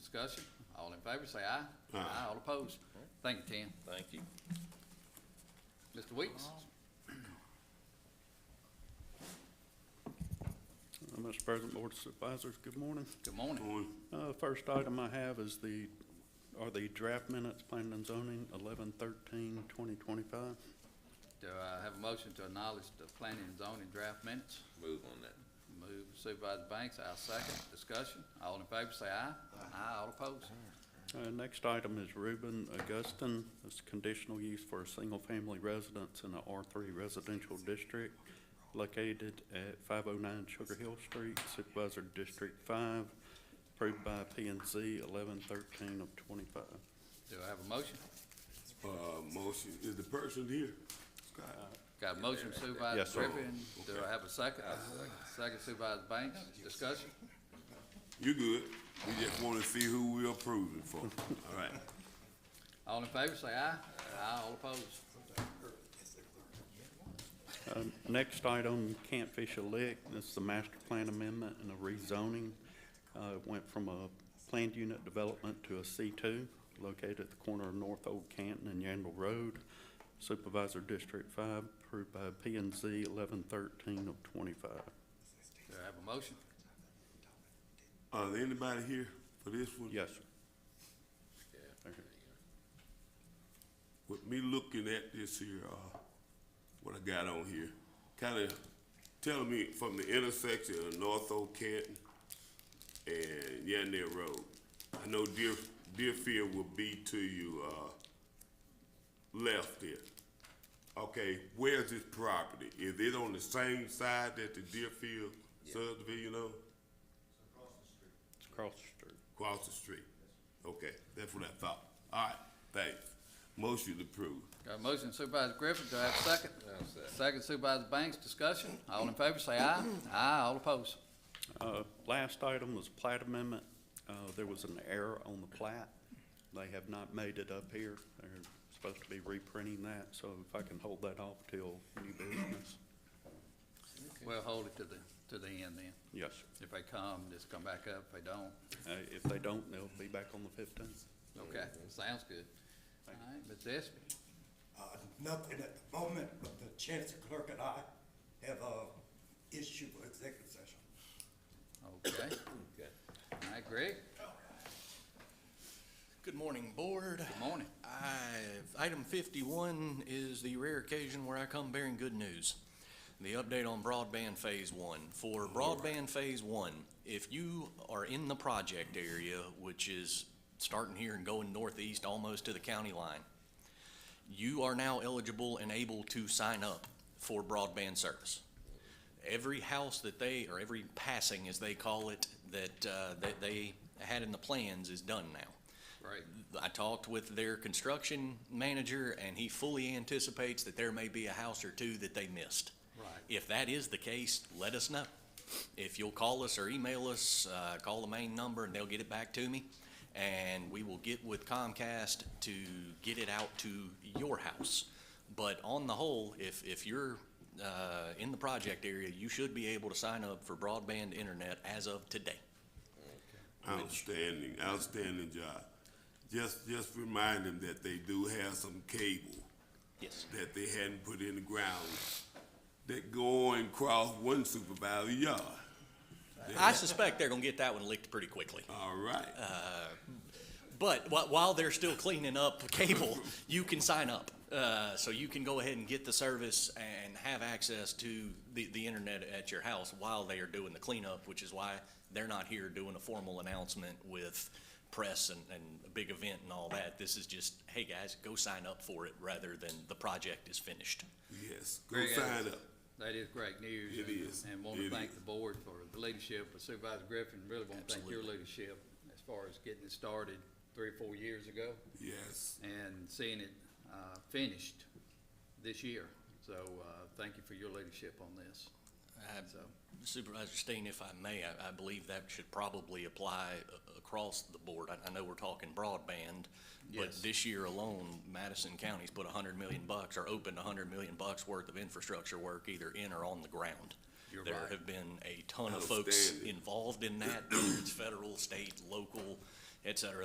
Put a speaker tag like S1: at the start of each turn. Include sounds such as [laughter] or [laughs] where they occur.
S1: Discussion, all in favor, say aye.
S2: Aye.
S1: All opposed. Thank you, Tim.
S3: Thank you.
S1: Mr. Weeks?
S4: Uh, Mr. President, Board of Supervisors, good morning.
S1: Good morning.
S2: Morning.
S4: Uh, First item I have is the, are the draft minutes, planning and zoning, 11-13-2025.
S1: Do I have a motion to acknowledge the planning and zoning draft minutes?
S3: Move on that.
S1: Move Supervisor Banks, I'll second. Discussion, all in favor, say aye. Aye. All opposed.
S4: Uh, Next item is Reuben Augustin. It's conditional use for a single-family residence in a R3 residential district located at 509 Sugar Hill Street, Supervisor District 5, approved by P and Z 11-13 of 25.
S1: Do I have a motion?
S2: Uh, motion, is the person here? Scott?
S1: Got a motion
S4: Yes,
S1: Supervisor
S4: sir.
S1: Griffin, do I have a second? Second Supervisor Banks, discussion,
S2: You good? We just wanna see who we approving for. All right.
S1: all in favor, say aye. Aye. All opposed.
S4: Uh, Next item, Camp Fisher Lick, this is the master plan amendment and a rezoning. Uh, it Went from a planned unit development to a C2 located at the corner of North Old Canton and Yandle Road. Supervisor District 5, approved by P and Z 1113 of 25.
S1: Do I have a motion?
S2: Uh, is anybody here for this one?
S4: Yes, sir. Okay.
S2: With me looking at this here, uh, what I got on here, kinda telling me from the intersection of North Old Canton and Yandere Road. I know Deer, Deerfield will be to you, uh, left there. Okay, where's this property? Is it on the same side that the Deerfield subdivision on?
S4: It's across the street.
S2: Across the street? Okay, that's what I thought. All right, thanks. Motion approved.
S1: Got a motion Supervisor Griffin, do I have a second?
S3: second.
S1: Second Supervisor Banks, discussion, all in favor, say aye. Aye. All opposed.
S4: Uh, Last item was plat amendment. Uh, There was an error on the plat. They have not made it up here. They're supposed to be reprinting that, so if I can hold that off till new business.
S1: We'll hold it to the, to the end then.
S4: Yes, sir.
S1: If they come, just come back up. If they don't,
S4: Uh, If they don't, they'll be back on the fifteenth.
S1: okay, sounds good. All right, Ms. Espy,
S5: Uh, Nothing at the moment, but the chancellor clerk and I have a issue with executive session.
S1: okay. All right, Greg,
S6: Good morning, Board.
S1: good morning.
S6: I've- Item 51 is the rare occasion where I come bearing good news. The update on broadband Phase 1. For broadband Phase 1, if you are in the project area, which is starting here and going northeast almost to the county line, you are now eligible and able to sign up for broadband service. Every house that they, or every passing, as they call it, that, uh, that they had in the plans is done now.
S1: Great,
S6: I talked with their construction manager, and he fully anticipates that there may be a house or two that they missed.
S1: Right.
S6: If that is the case, let us know. If you'll call us or email us, uh, call the main number, and they'll get it back to me, and we will get with Comcast to get it out to your house. But on the whole, if, if you're uh, in the project area, you should be able to sign up for broadband internet as of today.
S2: Outstanding, outstanding job. Just, just remind them that they do have some cable
S6: Yes.
S2: that they hadn't put in the ground that going across one supervisor yard.
S6: I suspect they're going to get that one licked pretty quickly.
S2: All right.
S6: But wh- while they're still cleaning up cable, [laughs] you can sign up. Uh, so you can go ahead and get the service and have access to the, the internet at your house while they are doing the cleanup, which is why they're not here doing a formal announcement with press and, and a big event and all that. This is just, hey guys, go sign up for it rather than the project is finished.
S2: Yes, go
S1: Greg,
S2: sign up.
S1: that is great news.
S2: It
S1: and-
S2: is.
S1: And want to
S2: It
S1: thank
S2: is.
S1: the board for the leadership, but Supervisor Griffin, really want to thank your
S6: Absolutely.
S1: leadership as far as getting it started three or four years ago.
S2: Yes,
S1: and seeing it uh, finished this year. So uh, thank you for your leadership on this.
S6: I-
S1: So,
S6: Supervisor Steen, if I may, I, I believe that should probably apply a- across the board. I, I know we're talking broadband, but
S1: Yes.
S6: this year alone, Madison County's put a hundred million bucks or opened a hundred million bucks worth of infrastructure work either in or on the ground.
S1: You're
S6: There
S1: right.
S6: have been a ton of folks
S2: Outstanding.
S6: involved in that, whether it's federal, state, local, et cetera.